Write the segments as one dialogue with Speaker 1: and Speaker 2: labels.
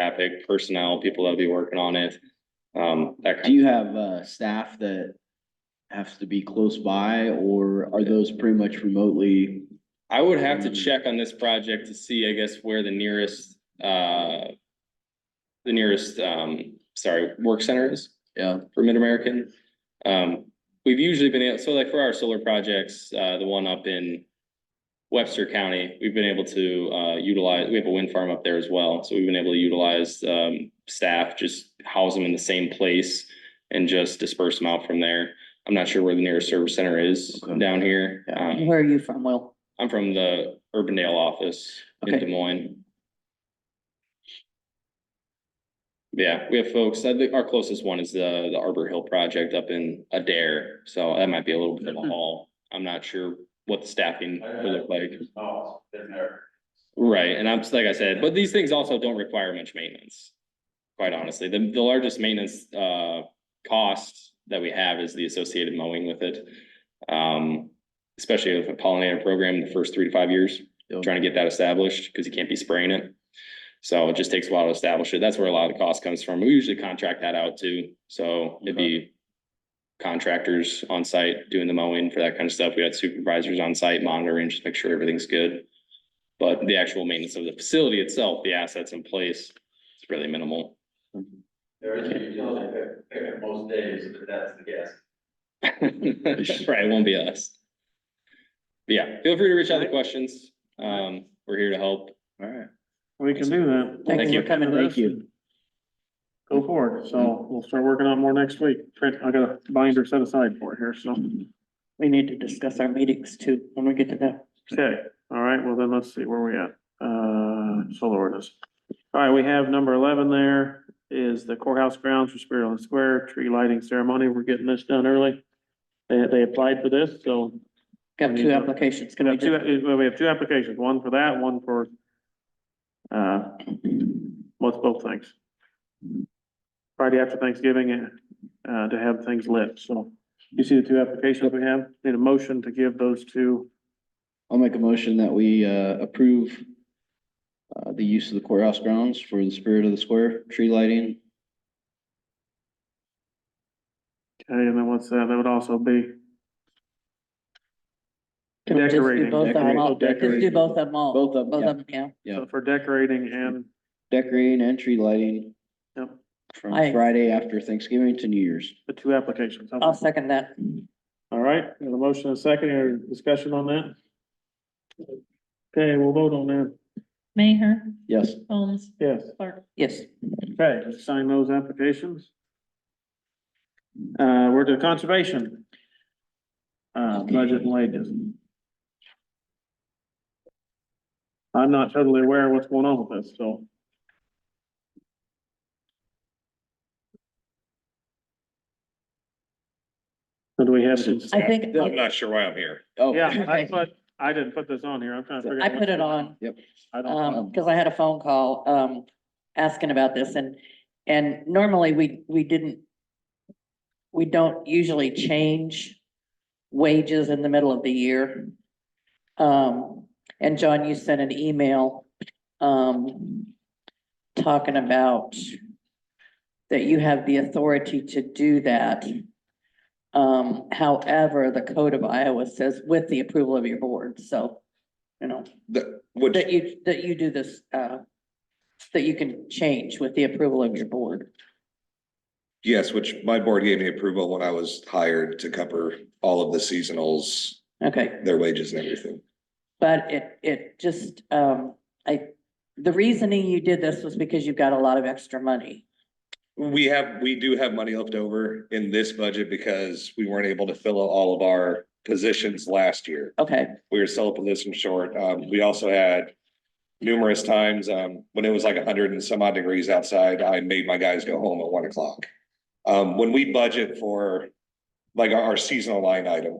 Speaker 1: traffic, personnel, people that'll be working on it. Um, that
Speaker 2: Do
Speaker 1: kind,
Speaker 2: you have, uh, staff that have to be close by or are those pretty much remotely?
Speaker 1: I would have
Speaker 2: Um,
Speaker 1: to check on this project to see, I guess, where the nearest, uh. The nearest, um, sorry, work center is.
Speaker 2: Yeah.
Speaker 1: for Mid-American. Um, we've usually been, able so like for our solar projects, uh, the one up in Webster County, we've been able to, uh, utilize, we have a wind farm up there as well, so we've been able to utilize, um, staff, just house them in the same place and just disperse them out from there. I'm not sure where the nearest service center is
Speaker 2: Okay.
Speaker 1: down here.
Speaker 2: Yeah.
Speaker 1: Um,
Speaker 3: Where are you from, Will?
Speaker 1: I'm from the Urbandale office in
Speaker 2: Okay.
Speaker 1: Des Moines. Yeah, we have folks, I think our closest one is the, the Arbor Hill project up in Adair, so that might be a little bit of a haul. I'm not sure what the staffing would look like.
Speaker 4: Oh, been there.
Speaker 1: Right, and I'm, like I said, but these things also don't require much maintenance. Quite honestly, the, the largest maintenance, uh, cost that we have is the associated mowing with it. Um, especially with a pollinator program, the first three to five years, trying to get that established, because you can't be spraying it. So it just takes a while to establish it. That's where a lot of the cost comes from. We usually contract that out too, so it'd be. Contractors on site doing the mowing for that kind of stuff. We had supervisors on site monitoring, just make sure everything's good. But the actual maintenance of the facility itself, the assets in place, it's really minimal.
Speaker 4: There is a utility pick- pickup most days, but that's the guess.
Speaker 1: Right, it won't be us. But Yeah, feel free to reach out with questions. Um, we're here to help.
Speaker 2: All right.
Speaker 5: We can do that.
Speaker 1: Thank
Speaker 3: Thank you
Speaker 1: you.
Speaker 3: for coming.
Speaker 2: Thank you.
Speaker 5: Go forward. So we'll start working on more next week. Trent, I got a binder set aside for it here, so.
Speaker 3: We need to discuss our meetings too, when we get to that.
Speaker 5: Okay, all right, well then let's see where we at. Uh, solar ordinance. All right, we have number eleven there is the courthouse grounds for Spirit on the Square, tree lighting ceremony. We're getting this done early. They, they applied for this, so
Speaker 3: Got two applications. Can
Speaker 5: we
Speaker 3: we
Speaker 5: have two,
Speaker 3: just,
Speaker 5: uh, we have two applications, one for that, one for uh, what's both things? Friday after Thanksgiving, uh, to have things lit, so you see the two applications we have, need a motion to give those two.
Speaker 2: I'll make a motion that we, uh, approve uh, the use of the courthouse grounds for the spirit of the square, tree lighting.
Speaker 5: Okay, and then what's that, that would also be,
Speaker 3: can we just do
Speaker 5: Decorating,
Speaker 3: both of them all? Just
Speaker 2: decorating.
Speaker 3: do both of them all.
Speaker 2: Both of them,
Speaker 3: Both
Speaker 2: yeah.
Speaker 3: of them, yeah.
Speaker 2: Yeah.
Speaker 5: so for decorating and,
Speaker 2: Decorating and tree lighting
Speaker 5: yep,
Speaker 2: from
Speaker 3: I-
Speaker 2: Friday after Thanksgiving to New Year's.
Speaker 5: the two applications.
Speaker 3: I'll second that.
Speaker 5: All right, got a motion and a second, or discussion on that? Okay, we'll vote on that,
Speaker 6: Mayor,
Speaker 2: Yes.
Speaker 6: Holmes,
Speaker 5: yes.
Speaker 6: Clark.
Speaker 3: Yes.
Speaker 5: Okay, let's sign those applications. Uh, we're to conservation. Uh, budget and wages. I'm not totally aware of what's going on with this, so. So do we have?
Speaker 3: I think,
Speaker 1: I'm not sure why I'm here.
Speaker 2: Oh.
Speaker 5: Yeah, I put, I didn't put this on here, I'm trying to figure. out
Speaker 3: I put it on,
Speaker 5: I don't,
Speaker 3: um, because I had a phone call, um, asking about this and, and normally we, we didn't, we don't usually change wages in the middle of the year. Um, and John, you sent an email, um, talking about that you have the authority to do that. Um, however, the code of Iowa says with the approval of your board, so, you know.
Speaker 7: The, which,
Speaker 3: That you, that you do this, uh, that you can change with the approval of your board.
Speaker 7: yes, which my board gave me approval when I was hired to cover all of the seasonals,
Speaker 3: Okay,
Speaker 7: their wages and everything.
Speaker 3: but it, it just, um, I, the reasoning you did this was because you've got a lot of extra money.
Speaker 7: We have, we do have money left over in this budget because we weren't able to fill all of our positions last year.
Speaker 3: Okay,
Speaker 7: We were still a position short. Um, we also had numerous times, um, when it was like hundred and some odd degrees outside, I made my guys go home at one o'clock. Um, when we budget for like our- our seasonal line item,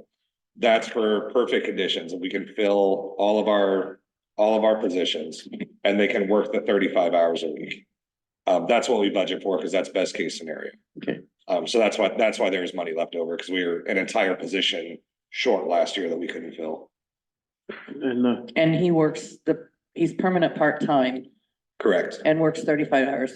Speaker 7: that's for perfect conditions and we can fill all of our, all of our positions and they can work the thirty-five hours a week. Um, that's what we budget for because that's best case scenario.
Speaker 5: Okay.
Speaker 7: Um, so that's why, that's why there was money left over because we were an entire position short last year that we couldn't fill.
Speaker 5: and, uh,
Speaker 3: and he works the, he's permanent part-time
Speaker 7: correct?
Speaker 3: and works thirty-five hours